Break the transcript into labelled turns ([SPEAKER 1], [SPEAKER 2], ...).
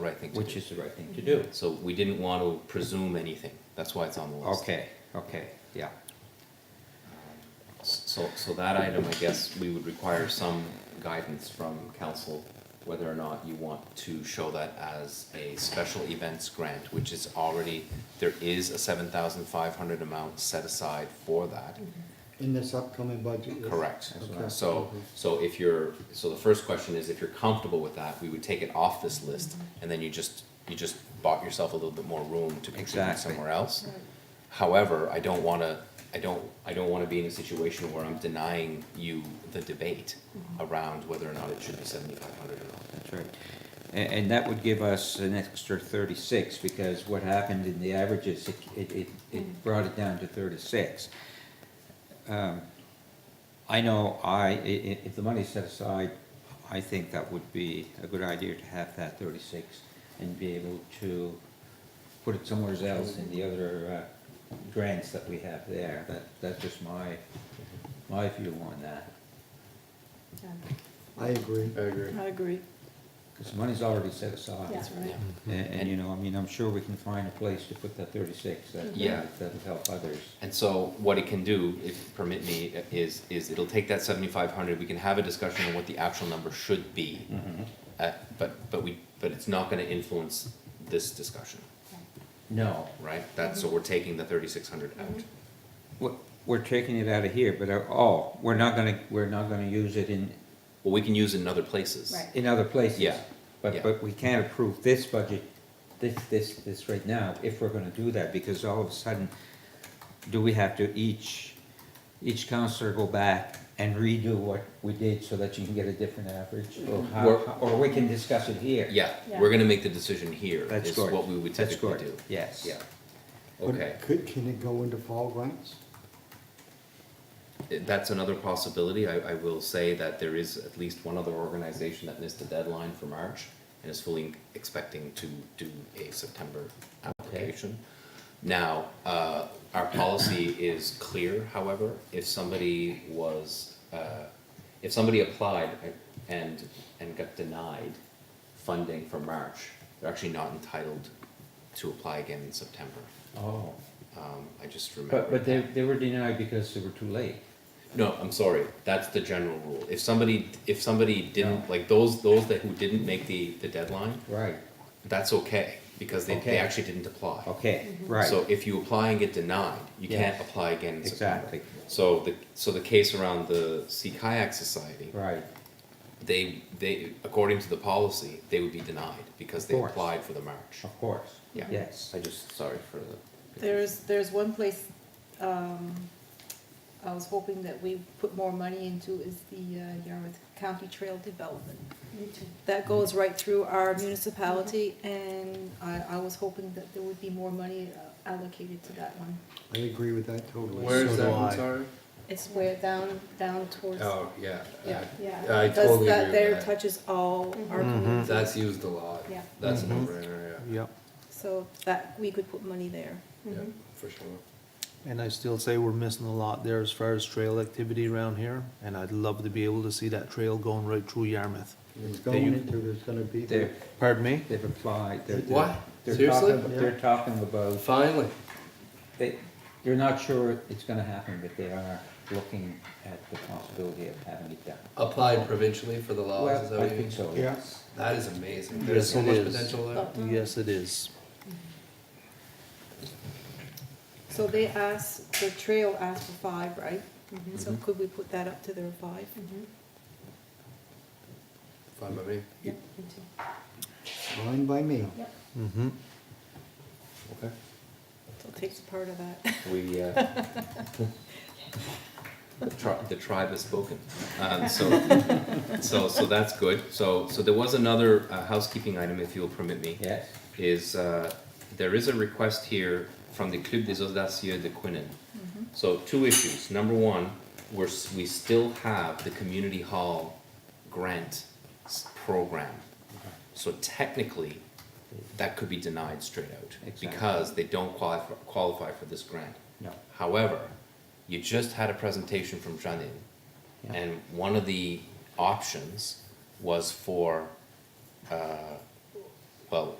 [SPEAKER 1] right thing to do.
[SPEAKER 2] which is the right thing to do.
[SPEAKER 1] So we didn't want to presume anything, that's why it's on the list.
[SPEAKER 2] Okay, okay, yeah,
[SPEAKER 1] So, so that item, I guess, we would require some guidance from council, whether or not you want to show that as a special events grant, which is already, there is a seven thousand five hundred amount set aside for that.
[SPEAKER 3] In this upcoming budget? yes.
[SPEAKER 1] Correct.
[SPEAKER 3] Okay.
[SPEAKER 1] So, so if you're, so the first question is, if you're comfortable with that, we would take it off this list, and then you just, you just bought yourself a little bit more room to contribute
[SPEAKER 2] Exactly.
[SPEAKER 1] somewhere else. However, I don't wanna, I don't, I don't wanna be in a situation where I'm denying you the debate around whether or not it should be seventy-five hundred or not.
[SPEAKER 2] that's right. And, and that would give us an extra thirty-six, because what happened in the averages, it, it, it, it brought it down to thirty-six. Um, I know I, i- i- if the money's set aside, I think that would be a good idea to have that thirty-six and be able to put it somewhere else in the other, uh, grants that we have there. That, that's just my, my view on that.
[SPEAKER 3] I agree.
[SPEAKER 4] I agree.
[SPEAKER 5] I agree.
[SPEAKER 2] Because money's already set aside.
[SPEAKER 5] That's right.
[SPEAKER 1] Yeah.
[SPEAKER 2] A- And, you know, I mean, I'm sure we can find a place to put that thirty-six,
[SPEAKER 5] Mm-hmm.
[SPEAKER 2] that,
[SPEAKER 1] Yeah.
[SPEAKER 2] that'll help others.
[SPEAKER 1] And so what it can do, if you permit me, is, is it'll take that seventy-five hundred, we can have a discussion on what the actual number should be.
[SPEAKER 2] Mm-hmm.
[SPEAKER 1] Uh, but, but we, but it's not gonna influence this discussion,
[SPEAKER 2] No,
[SPEAKER 1] right? That's, so we're taking the thirty-six hundred
[SPEAKER 5] Mm-hmm.
[SPEAKER 1] out.
[SPEAKER 2] we're, we're taking it out of here, but, uh, oh, we're not gonna, we're not gonna use it in,
[SPEAKER 1] Well, we can use it in other places.
[SPEAKER 5] Right.
[SPEAKER 2] in other places.
[SPEAKER 1] Yeah, yeah.
[SPEAKER 2] But, but we can't approve this budget, this, this, this right now, if we're gonna do that, because all of a sudden, do we have to each, each counselor go back and redo what we did so that you can get a different average? Or
[SPEAKER 1] Mm-hmm. We're-
[SPEAKER 2] how, or we can discuss it here?
[SPEAKER 1] Yeah,
[SPEAKER 5] Yeah.
[SPEAKER 1] we're gonna make the decision here,
[SPEAKER 2] That's
[SPEAKER 1] is
[SPEAKER 2] good.
[SPEAKER 1] what we would
[SPEAKER 2] That's
[SPEAKER 1] typically
[SPEAKER 2] good.
[SPEAKER 1] do.
[SPEAKER 2] Yes.
[SPEAKER 1] Yeah,
[SPEAKER 3] But
[SPEAKER 1] okay,
[SPEAKER 3] Could, can it go into fall grants?
[SPEAKER 1] It- that's another possibility, I, I will say that there is at least one other organization that missed the deadline for March, and is fully expecting to do a September application. Now, uh, our policy is clear, however, if somebody was, uh, if somebody applied and, and got denied funding for March, they're actually not entitled to apply again in September.
[SPEAKER 2] Oh,
[SPEAKER 1] Um, I just remember.
[SPEAKER 2] but, but they, they were denied because they were too late.
[SPEAKER 1] No, I'm sorry, that's the general rule. If somebody, if somebody didn't,
[SPEAKER 2] No.
[SPEAKER 1] like those, those that who didn't make the, the deadline,
[SPEAKER 2] Right.
[SPEAKER 1] that's okay, because they,
[SPEAKER 2] Okay.
[SPEAKER 1] they actually didn't apply.
[SPEAKER 2] Okay,
[SPEAKER 4] Mm-hmm.
[SPEAKER 2] right,
[SPEAKER 1] So if you apply and get denied, you can't
[SPEAKER 2] Yes.
[SPEAKER 1] apply again in September.
[SPEAKER 2] exactly,
[SPEAKER 1] So the, so the case around the Sea Kayak Society,
[SPEAKER 2] right,
[SPEAKER 1] they, they, according to the policy, they would be denied because they
[SPEAKER 2] Of course.
[SPEAKER 1] applied for the March.
[SPEAKER 2] of course,
[SPEAKER 1] Yeah.
[SPEAKER 2] yes.
[SPEAKER 1] I just, sorry for the.
[SPEAKER 5] There's, there's one place, um, I was hoping that we put more money into is the uh, Yarmouth County Trail Development. That goes right through our municipality and I, I was hoping that there would be more money uh, allocated to that one.
[SPEAKER 3] I agree with that totally.
[SPEAKER 4] Where's that one,
[SPEAKER 3] So do I.
[SPEAKER 4] sorry?
[SPEAKER 5] It's where down, down towards,
[SPEAKER 4] Oh, yeah.
[SPEAKER 5] yeah.
[SPEAKER 4] I
[SPEAKER 5] Because
[SPEAKER 4] totally
[SPEAKER 5] that
[SPEAKER 4] agree with
[SPEAKER 5] there
[SPEAKER 4] that. Mm-hmm.
[SPEAKER 5] touches all our
[SPEAKER 3] Mhm.
[SPEAKER 4] I-
[SPEAKER 5] communities.
[SPEAKER 4] That's used a lot.
[SPEAKER 5] Yeah.
[SPEAKER 4] That's a no-brainer,
[SPEAKER 6] Mm-hmm. Yep,
[SPEAKER 5] So that, we could put money there.
[SPEAKER 4] yeah, yeah, for sure.
[SPEAKER 6] and I still say we're missing a lot there as far as trail activity around here, and I'd love to be able to see that trail going right through Yarmouth.
[SPEAKER 3] It's
[SPEAKER 6] That you-
[SPEAKER 3] going into, there's gonna be.
[SPEAKER 2] They've,
[SPEAKER 6] Pardon me?
[SPEAKER 2] they've applied, they're. they're-
[SPEAKER 4] What?
[SPEAKER 2] they're
[SPEAKER 4] Seriously?
[SPEAKER 2] talking- They're talking about,
[SPEAKER 4] Finally,
[SPEAKER 2] they, they're not sure it's gonna happen, but they are looking at the possibility of having it done.
[SPEAKER 4] applied provincially for the laws, Oh, is that
[SPEAKER 2] Well, I
[SPEAKER 4] what you mean?
[SPEAKER 2] think so,
[SPEAKER 3] Yeah.
[SPEAKER 2] yes.
[SPEAKER 4] That is amazing.
[SPEAKER 6] Yes,
[SPEAKER 4] There's so
[SPEAKER 6] it
[SPEAKER 4] much
[SPEAKER 6] is.
[SPEAKER 4] potential there.
[SPEAKER 6] Yes, it is.
[SPEAKER 5] So they asked, the trail asked for five, right? So could we put that up to their five?
[SPEAKER 4] Fine by me.
[SPEAKER 3] Fine by me.
[SPEAKER 6] Mm-hmm.
[SPEAKER 1] Okay.
[SPEAKER 5] So it takes part of that.
[SPEAKER 1] We, uh, the tri- the tribe has spoken. Um, so, so, so that's good. So, so there was another uh, housekeeping item, if you'll permit me,
[SPEAKER 2] Yes,
[SPEAKER 1] is, uh, there is a request here from the Club des Audacieux de Quinnen. So two issues. Number one, we're, s- we still have the community hall grant s- program. So technically, that could be denied straight out
[SPEAKER 2] Exactly.
[SPEAKER 1] because they don't qualify, qualify for this grant.
[SPEAKER 2] no,
[SPEAKER 1] However, you just had a presentation from Janine,
[SPEAKER 2] Yeah.
[SPEAKER 1] and one of the options was for, uh, well,